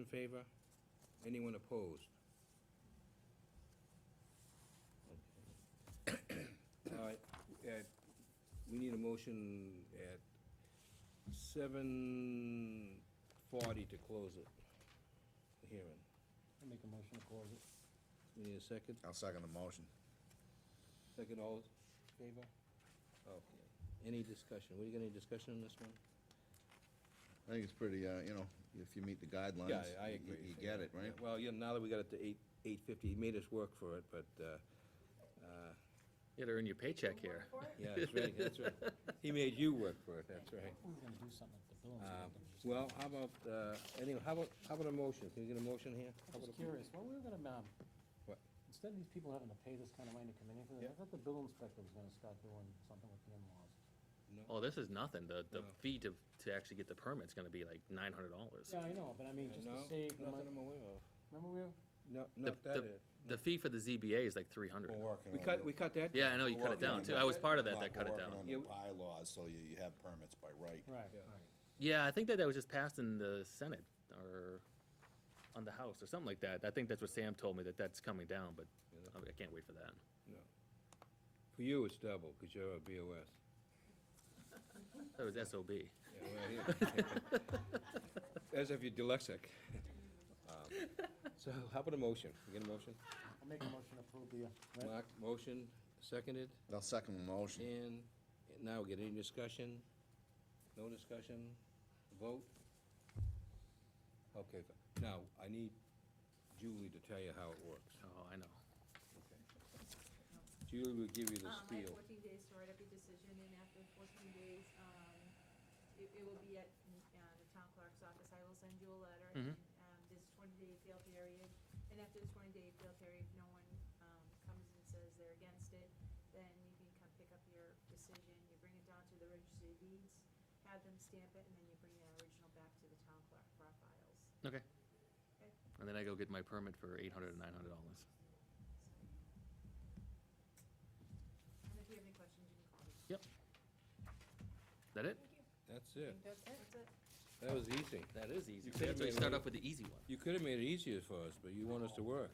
In favor? Anyone opposed? All right, at, we need a motion at seven forty to close it, the hearing. I'll make a motion to close it. We need a second? I'll second the motion. Second, all in favor? Okay. Any discussion? We got any discussion on this one? I think it's pretty, uh, you know, if you meet the guidelines. Yeah, I- I you- agree. You get it, right? Yeah, Well, yeah, now that we got it to eight, eight fifty, he made us work for it, but, uh, uh, You gotta earn your paycheck here. yeah, that's right, that's right. He made you work for it, that's right. We were gonna do something at the building. Um, Well, how about, uh, anyway, how about, how about a motion? Can we get a motion here? How I'm about just a- curious, well, we were gonna, um, What? instead of these people having to pay this kind of money to come in, here for this, Yeah. I thought the building inspector was gonna start doing something with the in-laws. No? Oh, this is nothing. The, the No. fee to, to actually get the permit's gonna be like nine hundred dollars. Yeah, I know, but I mean, just to No, save the Nothing money, I'm aware of. remember we, were- No, not that, the- The fee for the ZBA is like three hundred. we cut, we cut that? Yeah, I know, you cut it down too. I was part of that, that cut it We're down. working on the bylaws, so you, you have permits by right. right, Yeah. right. Yeah, I think that that was just passed in the Senate or on the House or something like that. I think that's what Sam told me, that that's coming down, but Yeah, that's- I I can't wait for that. For you, it's double, because you're a BOS. That was SOB. Yeah, well, yeah. As if you're dyslexic. Um, So how about a motion? We get a motion? I'll make a motion to approve the, uh, right? Mark, motion, seconded, I'll second the motion. and now we get any discussion? No discussion? Vote? Okay, th- now, I need Julie to tell you how it works. Oh, I know. Julie will give you the Um, I have spiel. fourteen days to write up your decision, and after fourteen days, um, it, it will be at, uh, the town clerk's office, I will send you a letter. Mhm. and, Um, there's twenty-day appeal period, and after the twenty-day appeal period, if no one, um, comes and says they're against it, then you can come pick up your decision, you bring it down to the registry of deeds, have them stamp it, and then you bring the original back to the town clerk for our files. Okay. And then I go get my permit for eight hundred and nine hundred dollars. And if you have any questions, you can call me. That it? That's it. That's it. That was easy. That is easy. You could've That's why made you a start little- off with the easy one. You could have made it easier for us, but you want us to work.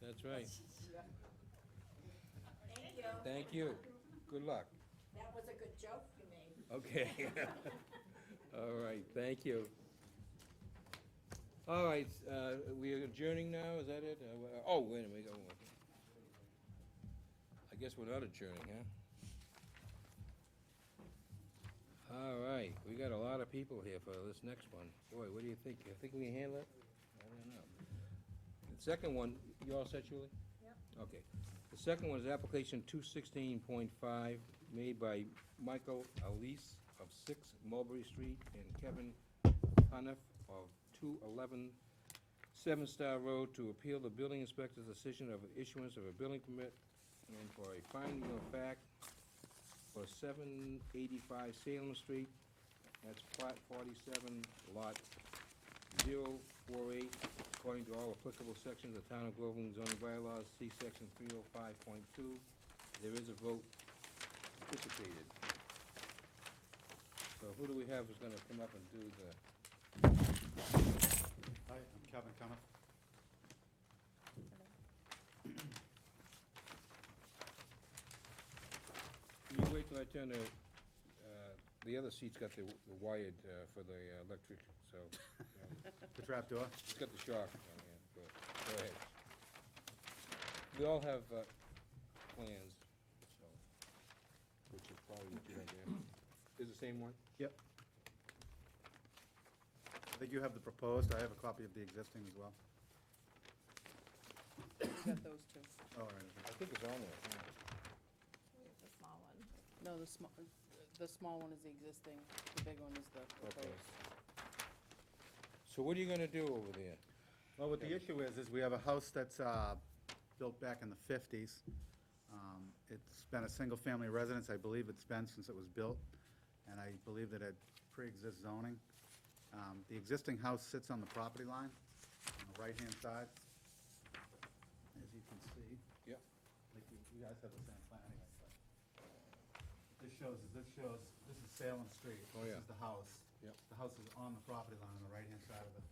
That's right. Thank you. Thank you. Good luck. That was a good joke you made. Okay. All right, thank you. All right, uh, we are adjourning now, is that it? Uh, wha- Oh, wait a minute, we got one. I guess we're not adjourning, huh? All right, we got a lot of people here for this next one. Boy, what do you think? You think we can handle it? I don't know. The second one, you all set, Julie? Yep. Okay. The second one is application two sixteen point five, made by Michael Elise of six Mulberry Street and Kevin Haniff of two eleven Seven Star Road to appeal the building inspector's decision of issuance of a building permit and for a finding of fact for seven eighty-five Salem Street, that's plot forty-seven, lot 048, according to all applicable sections of Town of Groveland zoning bylaws, see section three oh five point two. There is a vote anticipated. So who do we have who's gonna come up and do the, Hi, I'm Kevin Cuniff. can you wait till I turn the, uh, the other seat's got the the wired, uh, for the uh, electric, so, um, The trapdoor. it's got the shock on here, but, go ahead. We all have, uh, plans, so, which is probably what you have there. Is the same one? Yep. I think you have the proposed, I have a copy of the existing as well. You got those two. Oh, All right. I think it's on there. The small one. No, the small, the small one is the existing, the big one is the proposed. So what are you gonna do over there? Well, what the issue is, is we have a house that's uh, built back in the fifties. Um, It's been a single-family residence, I believe it's been since it was built, and I believe that it pre-exists zoning. Um, The existing house sits on the property line, on the right-hand side, as you can see. Yep. Like, you you guys have the same plan anyway, but. This shows, this shows, this is Salem Street. Oh, yeah. This is the house. Yep. The house is on the property line on the right-hand side of the